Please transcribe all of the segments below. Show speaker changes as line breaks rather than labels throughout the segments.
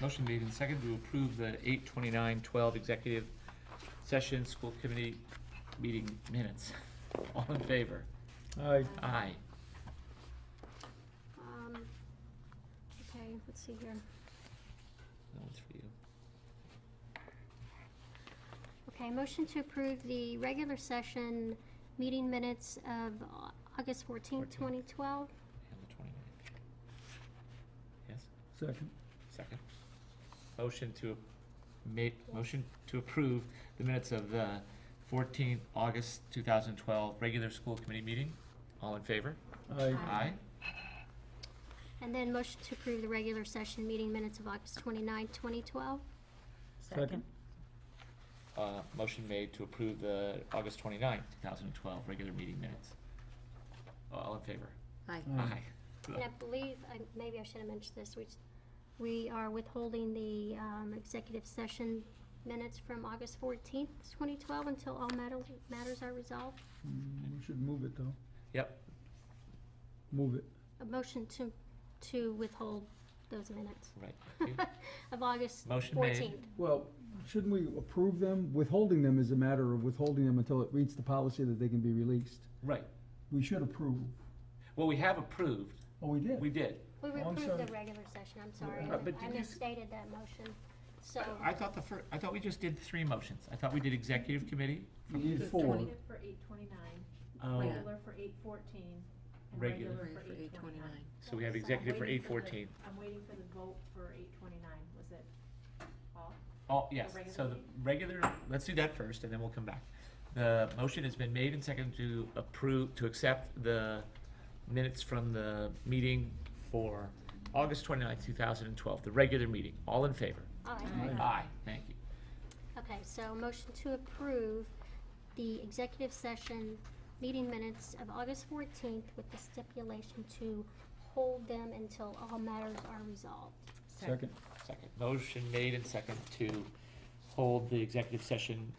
Motion made and seconded to approve the eight twenty-nine twelve executive session school committee meeting minutes. All in favor?
Aye.
Aye.
Um, okay, let's see here.
That one's for you.
Okay, motion to approve the regular session meeting minutes of Au- August fourteenth, twenty twelve.
And the twenty-ninth. Yes,
Second.
second. Motion to, make, motion to approve the minutes of the fourteenth August two thousand twelve regular school committee meeting. All in favor?
Aye.
Aye.
And then motion to approve the regular session meeting minutes of August twenty-ninth, twenty twelve.
Second.
Uh, motion made to approve the August twenty-ninth, two thousand twelve regular meeting minutes. Uh, All in favor?
Aye.
Mm.
Uh.
And I believe, I- maybe I should have mentioned this, which, we are withholding the um, executive session minutes from August fourteenth, twenty twelve, until all matter- matters are resolved.
Mm, We should move it, though.
Yep,
Move it.
A motion to, to withhold those minutes
right, thank you.
of August
Motion made.
fourteenth.
Well, shouldn't we approve them? Withholding them is a matter of withholding them until it reads the policy that they can be released.
Right,
We should approve.
well, we have approved,
Oh, we did?
we did.
We
Oh, I'm
approved
sorry.
the regular session, I'm sorry,
Uh, but
I- I
did you s-
misstated that motion, so.
I I thought the fir, I thought we just did three motions. I thought we did executive committee.
We need
The
four.
20
for eight twenty-nine,
Oh,
Yeah.
regular for eight fourteen, and
Regular.
regular
Three
for eight twenty-nine.
So we have executive for eight fourteen.
I'm waiting for the vote for eight twenty-nine, was it all?
Oh, yes,
The regular
so the regular, let's do that first and then we'll come back. The motion has been made and seconded to approve, to accept the minutes from the meeting for August twenty-ninth, two thousand and twelve, the regular meeting. All in favor?
Aye.
Aye, thank you.
Okay, so motion to approve the executive session meeting minutes of August fourteenth with the stipulation to hold them until all matters are resolved.
Second.
Second, motion made and second to hold the executive session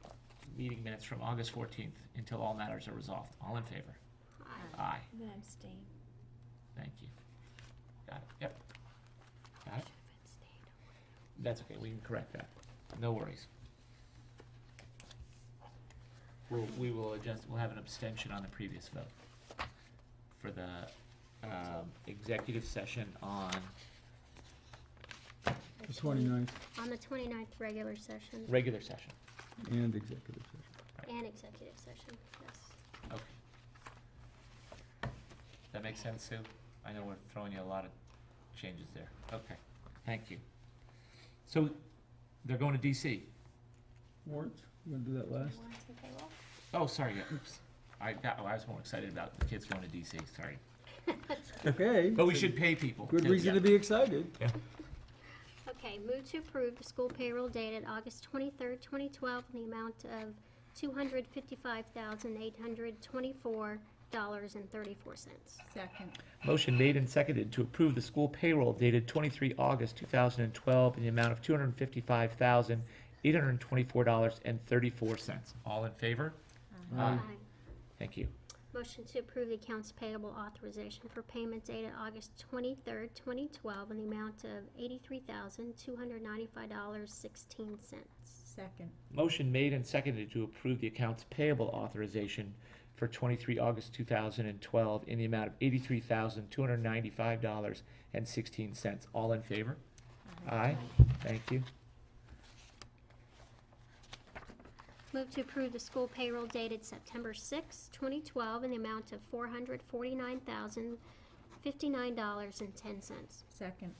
meeting minutes from August fourteenth until all matters are resolved. All in favor?
Aye.
Aye.
I'm gonna abstain.
Thank you. Got it, yep. Got it? That's okay, we can correct that. No worries. We'll, we will adjust, we'll have an abstention on the previous vote for the, um, executive session on
The 29th
On the 29th regular session
regular session.
and executive session.
and executive session, yes.
Okay. That makes sense, Sue? I know we're throwing you a lot of changes there. Okay, thank you. So, they're going to DC?
Warrants? You wanna do that last?
Oh, sorry, yeah, oops. I got, oh, I was more excited about the kids going to DC, sorry.
Okay.
But we should pay people.
Good
too.
reason to be excited.
Okay, move to approve the school payroll dated August 23rd, 2012, in the amount of $255,824.34.
Second.
Motion made and seconded to approve the school payroll dated twenty-three August two thousand and twelve in the amount of two hundred and fifty-five thousand, eight hundred and twenty-four dollars and thirty-four cents. All in favor?
Aye.
Aye.
Thank you.
Motion to approve the accounts payable authorization for payment dated August 23rd, 2012, in the amount of $83,295.16.
Second.
Motion made and seconded to approve the accounts payable authorization for twenty-three August two thousand and twelve in the amount of eighty-three thousand, two hundred and ninety-five dollars and sixteen cents. All in favor? Aye, thank you.
Move to approve the school payroll dated September 6th, 2012, in the amount of $449,059.10.
Second.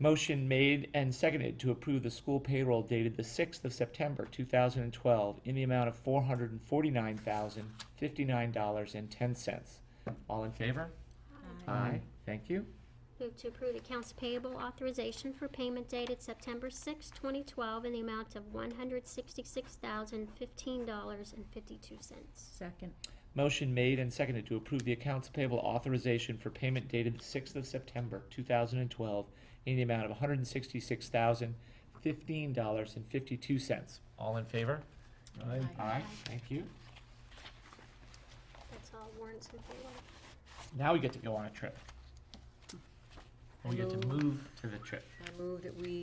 Motion made and seconded to approve the school payroll dated the sixth of September, two thousand and twelve, in the amount of four hundred and forty-nine thousand, fifty-nine dollars and ten cents. All in favor? Aye, thank you.
Move to approve accounts payable authorization for payment dated September 6, 2012, in the amount of $166,015.52.
Second.
Motion made and seconded to approve the accounts payable authorization for payment dated the sixth of September, two thousand and twelve, in the amount of one hundred and sixty-six thousand, fifteen dollars and fifty-two cents. All in favor?
Aye.
Aye, thank you.
That's all warrants and payroll.
Now we get to go on a trip. We get to
Hello.
move to the trip.
I move that we